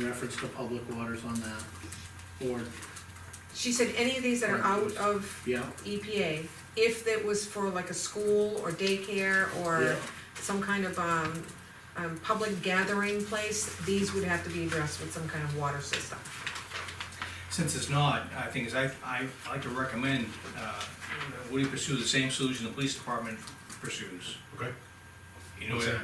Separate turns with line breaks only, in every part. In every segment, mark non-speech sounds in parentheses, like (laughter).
reference to public waters on that. Or,
She said any of these that are out of
yeah,
EPA, if that was for like a school or daycare
yeah,
or some kind of, um, um, public gathering place, these would have to be addressed with some kind of water system.
Since it's not, I think is I, I like to recommend, uh, Woody pursue the same solution the police department pursues.
Okay,
You know,
What's that?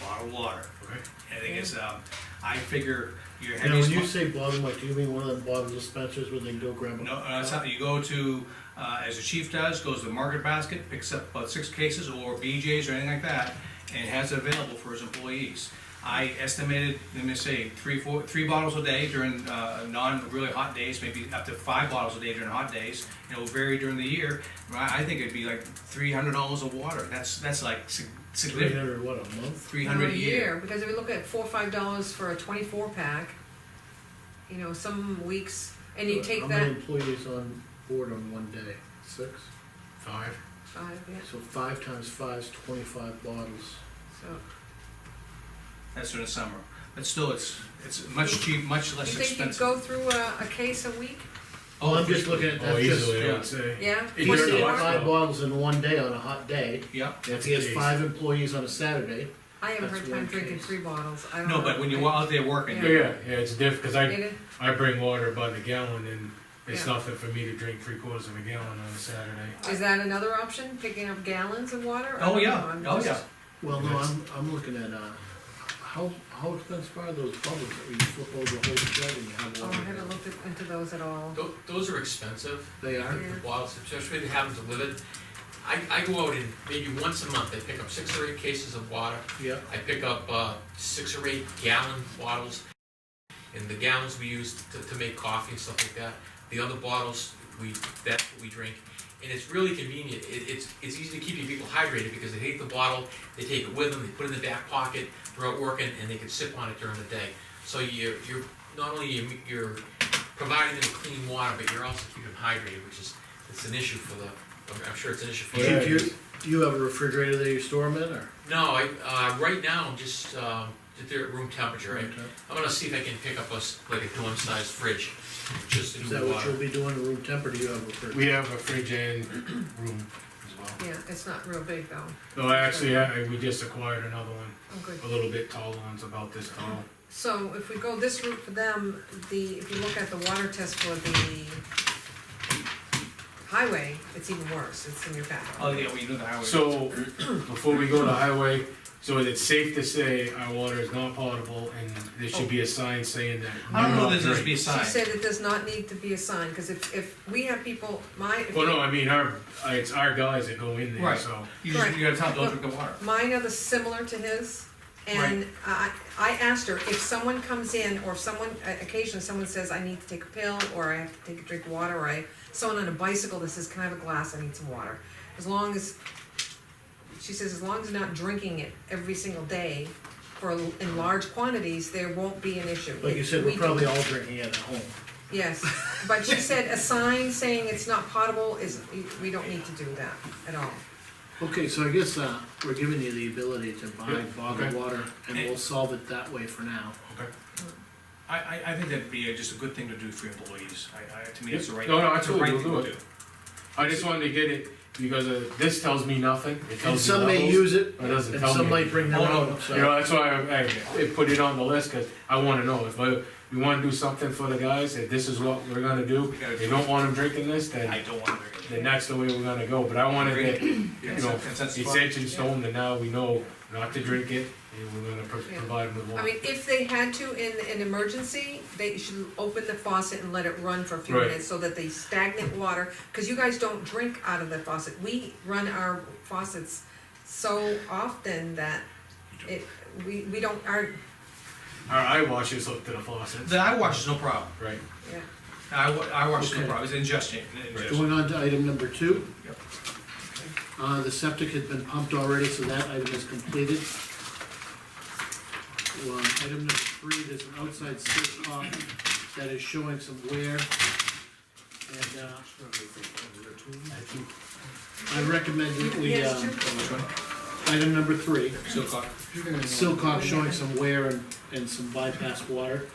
bottled water.
okay.
And I think it's, um, I figure your
now, when
heaviest.
you say bottom, like, do you mean one of them bottom dispensers where they can go grab a?
No, uh, it's not- you go to, uh, as the chief does, goes to the market basket, picks up about six cases or BJ's or anything like that, and has it available for his employees. I estimated, let me say, three, four, three bottles a day during, uh, non-really hot days, maybe up to five bottles a day during hot days. and It'll vary during the year, I, I think it'd be like three hundred dollars of water, that's, that's like sig-
Three
significant,
hundred, what, a month?
three hundred a year.
Because if we look at four, or five dollars for a twenty-four pack, you know, some weeks, and you take
Uh, How many
that,
employees on board on one day? Six?
Five,
five, yeah,
So five times five's twenty-five bottles.
so.
That's during the summer, but still, it's, it's much cheap, much
You
less
think you'd
expensive.
go through a, a case a week?
Oh, I'm just looking at
oh,
that, just,
easily, I
yeah.
would say.
Yeah?
if
What's
you're doing
Once a
the amount?
year?
five bottles in one day on a hot day,
Yeah,
if he has
Jeez.
five employees on a Saturday,
I haven't
That's
heard time
one
drinking
case.
three bottles, I don't know.
no, but when you're out there working,
Yeah, yeah, yeah, it's diff, cause I,
It is-
I bring water by the gallon and it's
Yeah.
nothing for me to drink three quarters of a gallon on a Saturday.
Is that another option, picking up gallons of water? I
Oh,
don't
yeah,
know, I'm
oh,
just-
yeah.
Well, no,
Yes.
I'm, I'm looking at, uh, how, how expensive are those bubbles that you flip over the whole shed and you have
Oh, I
water?
haven't looked at- into those at all.
Tho- Those are expensive,
They are,
the bottles, especially if they have them delivered. I, I go out and maybe once a month, I pick up six or eight cases of water.
yeah,
I pick up uh, six or eight gallon bottles, and the gallons we use to, to make coffee and stuff like that. The other bottles, we, that's what we drink. And it's really convenient. It, it's, it's easy to keep your people hydrated because they take the bottle, they take it with them, they put it in the back pocket, they're out working, and they can sip on it during the day. So you're, you're, not only you're, you're providing them clean water, but you're also keeping them hydrated, which is, it's an issue for the, I'm- I'm sure it's an issue for
Do
you.
you,
Yeah.
do you, do you have a refrigerator that you store them in, or?
No, I, uh, right now, I'm just, um, they're at room temperature, right?
Okay.
I'm gonna see if I can pick up a, s- like a dorm-sized fridge, just to
Is
do
that what you'll
water.
be doing, room temperature, you have a refrigerator?
We have a fridge and room as well.
Yeah, it's not real big though.
No, actually, I, I- we just acquired another one,
Oh, good.
a little bit taller one's about this tall.
So if we go this route for them, the, if you look at the water test for the highway, it's even worse, it's in your back.
Oh, yeah, well, you know the highway.
So, before we go to highway, so is it safe to say our water is not potable and there should be a sign saying that?
I don't know
do
if
not
there's
drink?
be a
She
sign.
said it does not need to be a sign, because if, if we have people, my. if
Well, no, I mean, our, it's our guys that go in there,
Right.
so.
You just,
Right.
you gotta tell them, don't drink the water.
Mine are the similar to his, and I, I asked her, if someone comes in, or if someone, uh, occasionally someone says, I need to take a pill, or I have to take a drink of water, or I, someone on a bicycle that says, can I have a glass, I need some water. As long as, she says, as long as they're not drinking it every single day for, in large quantities, there won't be an issue.
Like you said, we're
We can-
probably all drinking it at home.
(laughs) Yes, but she said, a sign saying it's not potable is, we- we don't need to do that at all.
Okay, so I guess, uh, we're giving you the ability to buy
Yeah,
bottled
okay.
water, and
Eh.
we'll solve it that way for now.
Okay.
I, I, I think that'd be uh, just a good thing to do for employees. I, I, to me, it's the right,
No, no,
it's the right
absolutely,
thing
we'll
to do.
I just wanted to get it, because uh, this tells me nothing, it
And
tells me
some may
levels.
use it,
Or doesn't
and
tell
some
me.
might bring their
Oh, no,
own,
You
so,
know, that's why I, I- I put it on the list, cause I wanna know, if I, we wanna do something for the guys, if this is what we're gonna do,
We gotta
they
do
don't want them drinking this,
I
then,
don't want to
then
drink it.
that's the way we're gonna go, but I wanted it, you know,
Consensus
it's
vote.
etched in stone, that now we know not to drink it, and we're gonna pro-
Yeah.
provide them with
I
water.
mean, if they had to in an emergency, they should open the faucet and let it run for a few
Right.
minutes so that the stagnant water, because you guys don't drink out of the faucet. We run our faucets so often that it, we, we don't, our,
Our eye washers hooked to the faucet,
The eye wash is no problem.
right,
yeah.
Eye, wa- eye wash is no
Okay.
problem, it's ingestion, ingestion.
going on to item number two.
Yep.
Uh, the septic had been pumped already, so that item is completed. Well, item number three, there's an outside silt pump that is showing some wear. And, uh, I recommend that we,
Yes,
um,
true.
Which one?
item number three,
Silcock.
silt pump showing some wear and, and some bypass water.